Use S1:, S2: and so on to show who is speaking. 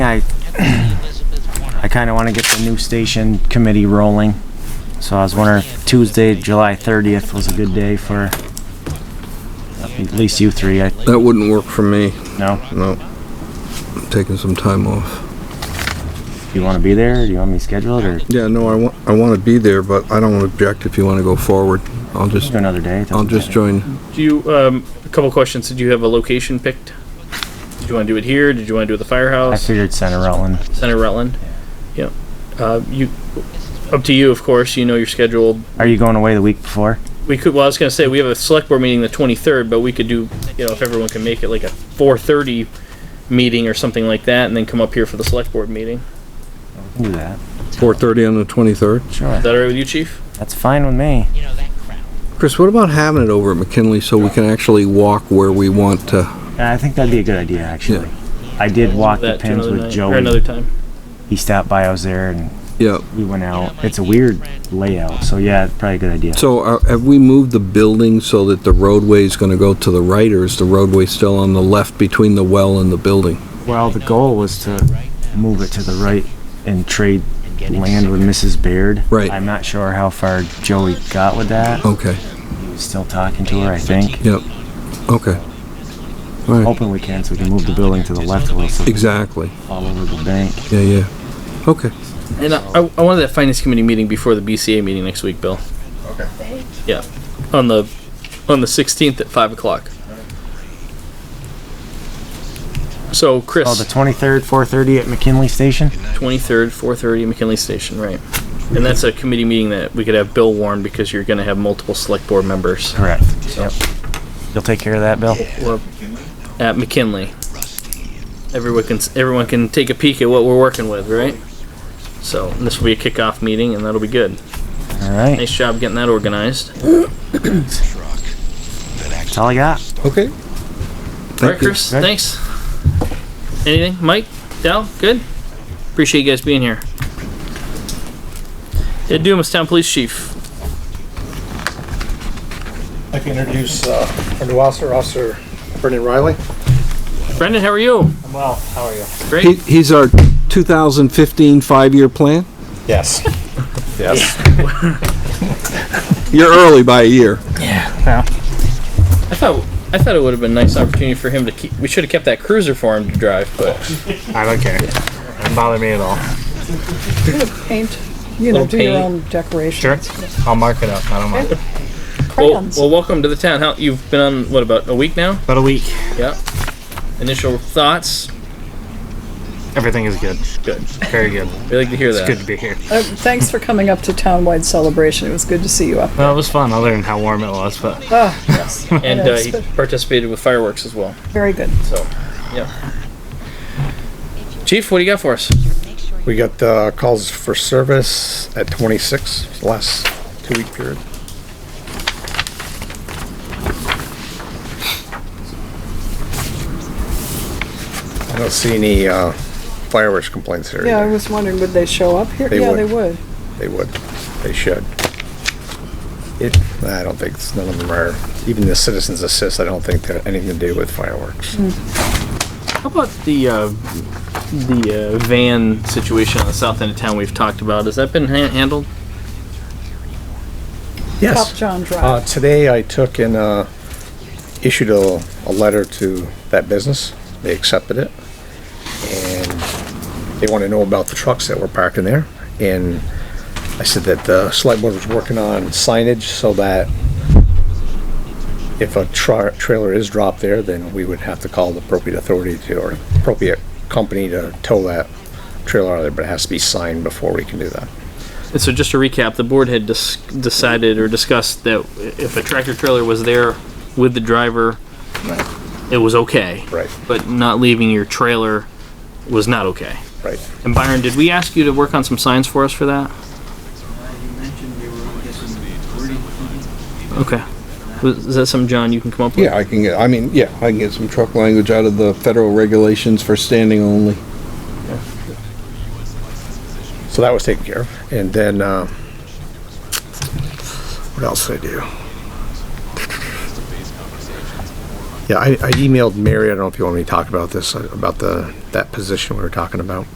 S1: I, I kind of want to get the new station committee rolling. So I was wondering if Tuesday, July 30th was a good day for at least you three, I
S2: That wouldn't work for me.
S1: know.
S2: No. I'm taking some time off.
S1: Do you want to be there? Do you want me scheduled or
S2: Yeah, no, I want, I want to be there, but I don't object if you want to go forward. I'll just,
S1: do another day?
S2: I'll just join.
S3: Do you, um, a couple questions. Did you have a location picked? Did you want to do it here? Did you want to do it at the
S1: I
S3: firehouse?
S1: figured Center Rutland.
S3: Center Rutland? Yep. Uh, you, up to you, of course. You know your schedule.
S1: Are you going away the week before?
S3: We could, well, I was gonna say, we have a select board meeting the twenty-third, but we could do, you know, if everyone can make it like a four-thirty meeting or something like that, and then come up here for the select board meeting.
S1: We can Do that.
S2: 4:30 on the 23rd.
S1: Sure.
S3: Is that all right with you, chief?
S1: That's fine with me.
S4: You know, that crowd.
S2: Chris, what about having it over at McKinley so we can actually walk where we want to?
S1: Yeah, I think that'd be a good idea, actually. I did walk the
S3: That to
S1: pins
S3: another
S1: with
S3: night- Or another
S1: Joey.
S3: time.
S1: He stopped by, I was there and
S2: Yeah.
S1: we went out. It's a weird layout, so yeah, probably a good idea.
S2: So are- have we moved the building so that the roadway is going to go to the right or is the roadway still on the left between the well and the building?
S1: Well, the goal was to move it to the right and trade land with Mrs. Baird.
S2: Right.
S1: I'm not sure how far Joey got with that.
S2: Okay,
S1: He was still talking to her, I think.
S2: yep, okay. All
S3: Oh.
S2: right,
S1: Hoping we can, so we can move the building to the left a little, so it's
S2: exactly.
S1: all over the bank.
S2: Yeah, yeah. Okay.
S3: And I, I I wanted that finance committee meeting before the BCA meeting next week, Bill. Okay. Yeah, on the, on the sixteenth at five o'clock. So
S1: Oh, the
S3: Chris,
S1: 23rd, 4:30 at McKinley Station?
S3: twenty-third, four-thirty, McKinley Station, right? And that's a committee meeting that we could have Bill warn because you're gonna have multiple select board members
S1: Correct. Yep. You'll take care of that, Bill?
S3: We're at McKinley. Everyone can, everyone can take a peek at what we're working with, right? So and this will be a kickoff meeting and that'll be good.
S1: All right,
S3: Nice job getting that organized.
S1: that's all I got.
S2: Okay.
S3: All right, Chris.
S1: Right.
S3: Thanks. Anything, Mike, Dal? Good. Appreciate you guys being here. Ed Dumas, Town Police Chief.
S5: I can introduce uh, our new officer, Officer Brendan Riley.
S3: Brendan, how are you?
S5: I'm well, how are you?
S2: He,
S3: Great.
S2: he's our 2015 five-year plan?
S5: Yes. Yes.
S2: You're early by a year.
S3: I thought I thought it would have been a nice opportunity for him to keep. We should have kept that cruiser for him to drive, but
S5: I don't care. Doesn't bother me at all.
S6: paint, you know,
S3: Little
S6: do your
S3: paint.
S6: own
S5: Sure.
S6: decorations.
S5: I'll mark it up. I don't mind.
S3: well,
S6: Crayons.
S3: well, welcome to the town. How you've been on? What about a week now?
S5: About a week.
S3: Yeah. Initial thoughts.
S5: Everything is good.
S3: Good.
S5: Very good.
S3: We like to hear that.
S5: It's good to be here.
S6: Uh, Thanks for coming up to Townwide Celebration. It was good to see you up.
S5: Well, it was fun, other than how warm it was, but
S6: Ah, yes.
S3: And
S6: Yeah,
S3: uh,
S6: it's
S3: he
S6: good.
S3: participated with fireworks as well.
S6: Very good.
S3: So, yeah. Chief, what do you got for us?
S5: we got uh, calls for service at 26, the last two-week period. I don't see any uh, fireworks complaints here.
S6: Yeah, I
S5: either.
S6: was wondering, would they show up here?
S5: They
S6: Yeah,
S5: would.
S6: they would.
S5: They would. They should. It, I don't think, it's- none of them are, even the citizens assist, I don't think they have anything to do with fireworks.
S3: How about the uh, the uh, van situation on the south end of town we've talked about? Has that been ha- handled?
S6: Top John
S3: Ah.
S5: Uh,
S6: Drive.
S5: today I took and, uh, issued a, a letter to that business. They accepted it. And they want to know about the trucks that were parked in there. And I said that the select board was working on signage so that if a tra- trailer is dropped there, then we would have to call the appropriate authority to, or appropriate company to tow that trailer out of there, but it has to be signed before we can do that.
S3: And so, just to recap, the board had dis- decided or discussed that if a tractor trailer was there with the driver, it was okay.
S5: Right,
S3: But not leaving your trailer was not okay.
S5: right.
S3: And Byron, did we ask you to work on some signs for us for that? Okay. Was- Is that something, John, you can come up with?
S2: Yeah, I can get, I mean, yeah, I can get some truck language out of the federal regulations for standing only.
S5: So that was taken care of. And then, uh, what else did I do? Yeah, I, I emailed Mary, I don't know if you want me to talk about this, uh, about the, that position we were talking about.